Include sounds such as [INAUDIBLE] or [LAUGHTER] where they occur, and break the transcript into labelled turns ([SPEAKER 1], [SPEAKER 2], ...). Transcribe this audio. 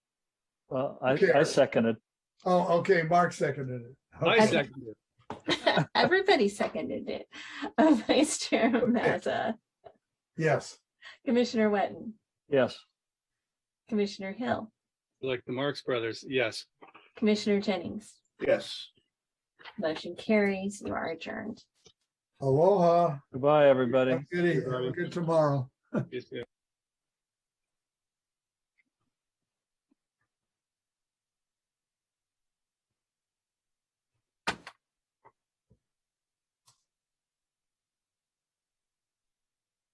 [SPEAKER 1] Well, I, I
[SPEAKER 2] Care.
[SPEAKER 1] second it.
[SPEAKER 2] Oh, okay, Mark seconded it.
[SPEAKER 3] I
[SPEAKER 2] Okay.
[SPEAKER 3] second it.
[SPEAKER 4] [LAUGHS] Everybody seconded it. [LAUGHS] Uh, Vice Chair Mazza,
[SPEAKER 2] Yes,
[SPEAKER 4] Commissioner Wetton,
[SPEAKER 1] Yes.
[SPEAKER 4] Commissioner Hill,
[SPEAKER 3] Like the Marx Brothers, yes.
[SPEAKER 4] Commissioner Jennings.
[SPEAKER 5] yes.
[SPEAKER 4] Motion carries. You are adjourned.
[SPEAKER 2] aloha.
[SPEAKER 1] Goodbye, everybody.
[SPEAKER 2] Have a Good evening. Have a Good tomorrow.
[SPEAKER 3] Yes, yes.